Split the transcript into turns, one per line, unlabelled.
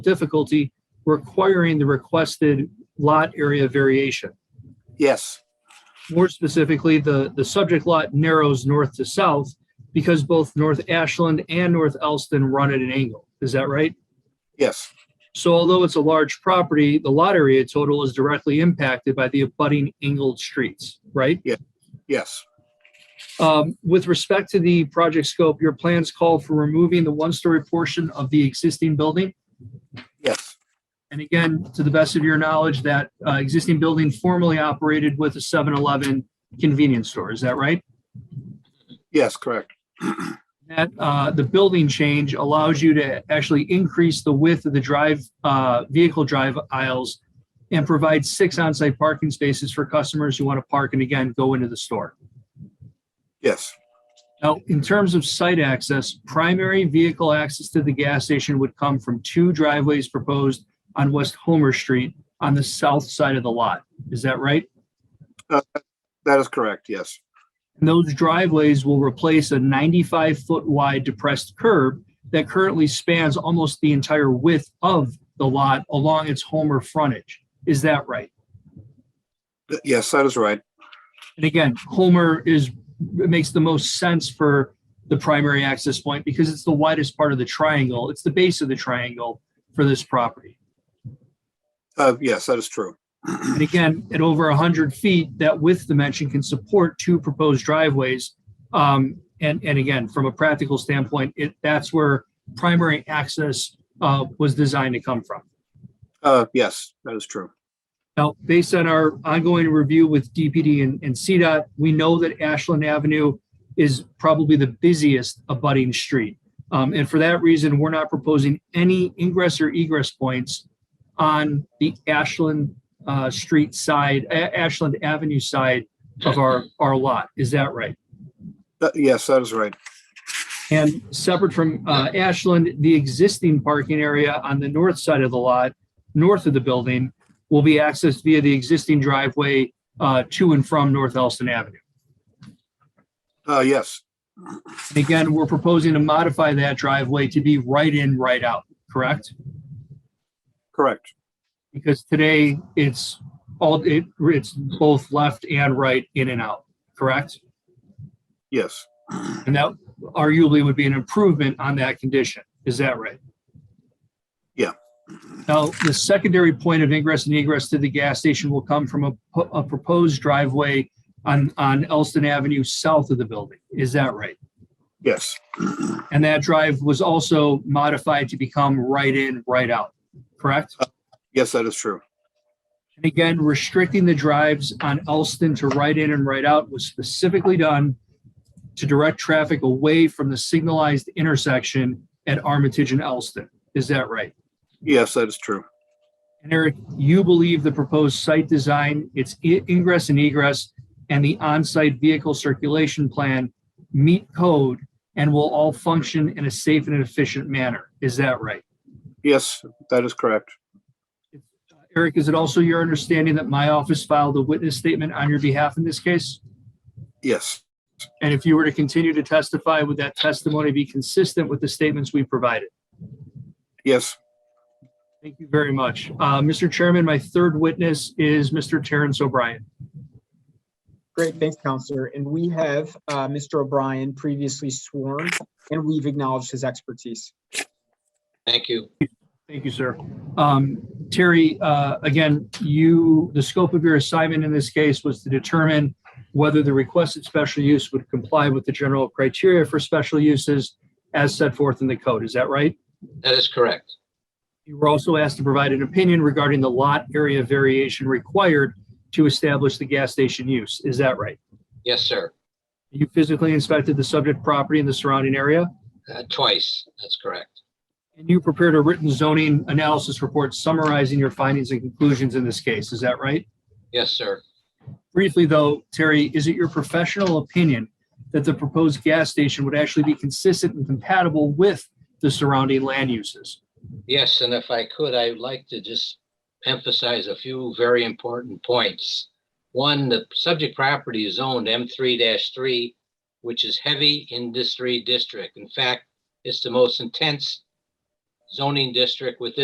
difficulty requiring the requested lot area variation.
Yes,
More specifically, the, the subject lot narrows north to south because both North Ashland and North Elston run at an angle. Is that right?
yes,
So although it's a large property, the lot area total is directly impacted by the abutting angled streets, right?
yes,
Um, With respect to the project scope, your plans call for removing the one-story portion of the existing building?
yes,
And again, to the best of your knowledge, that uh, existing building formerly operated with a 7-Eleven convenience store, is that right?
yes, correct.
That, uh, the building change allows you to actually increase the width of the drive, uh, vehicle drive aisles and provide six on-site parking spaces for customers who want to park and again, go into the store.
Yes,
Now, in terms of site access, primary vehicle access to the gas station would come from two driveways proposed on West Homer Street on the south side of the lot. Is that right?
Uh, that is correct. Yes,
And those driveways will replace a 95 foot wide depressed curb that currently spans almost the entire width of the lot along its Homer frontage. Is that right?
Th- yes, that is right.
And again, Homer is, it makes the most sense for the primary access point because it's the widest part of the triangle. It's the base of the triangle for this property.
Uh, yes, that is true.
And again, at over 100 feet, that width dimension can support two proposed driveways. Um, And, and again, from a practical standpoint, it, that's where primary access uh, was designed to come from.
Uh, yes, that is true.
Now, based on our ongoing review with DPD and, and CDOT, we know that Ashland Avenue is probably the busiest abutting street. Um, and for that reason, we're not proposing any ingress or egress points on the Ashland, uh, street side, A- Ashland Avenue side of our, our lot. Is that right?
Th- Uh, yes, that is right.
And separate from uh, Ashland, the existing parking area on the north side of the lot, north of the building, will be accessed via the existing driveway uh, to and from North Elston Avenue.
Uh, yes,
And Again, we're proposing to modify that driveway to be right in, right out, correct?
correct.
Because today, it's all, it- it's both left and right, in and out, correct?
Yes,
And that arguably would be an improvement on that condition. Is that right?
Yeah.
Now, the secondary point of ingress and egress to the gas station will come from a, po- a proposed driveway on, on Elston Avenue south of the building. Is that right?
yes,
And that drive was also modified to become right in, right out, correct?
yes, that is true.
And again, restricting the drives on Elston to right in and right out was specifically done to direct traffic away from the signalized intersection at Armitage and Elston. Is that right?
Yes, that is true.
And Eric, you believe the proposed site design, its i- ingress and egress, and the on-site vehicle circulation plan meet code and will all function in a safe and efficient manner. Is that right?
Yes, that is correct.
Eric, is it also your understanding that my office filed a witness statement on your behalf in this case?
Yes,
And if you were to continue to testify, would that testimony be consistent with the statements we provided?
yes,
Thank you very much. Uh, Mr. Chairman, my third witness is Mr. Terrence O'Brien.
Great, thanks, Counselor. And we have uh, Mr. O'Brien previously sworn, and we've acknowledged his expertise.
Thank you.
Thank you, sir. Um, Terry, uh, again, you, the scope of your assignment in this case was to determine whether the requested special use would comply with the general criteria for special uses as set forth in the code. Is that right?
That is correct.
You were also asked to provide an opinion regarding the lot area variation required to establish the gas station use. Is that right?
Yes, sir.
You physically inspected the subject property and the surrounding area,
Uh, Twice. That's correct.
and you prepared a written zoning analysis report summarizing your findings and conclusions in this case. Is that right?
Yes, sir.
Briefly, though, Terry, is it your professional opinion that the proposed gas station would actually be consistent and compatible with the surrounding land uses?
Yes, and if I could, I'd like to just emphasize a few very important points. One, the subject property is owned M3-3, which is heavy industry district. In fact, it's the most intense zoning district within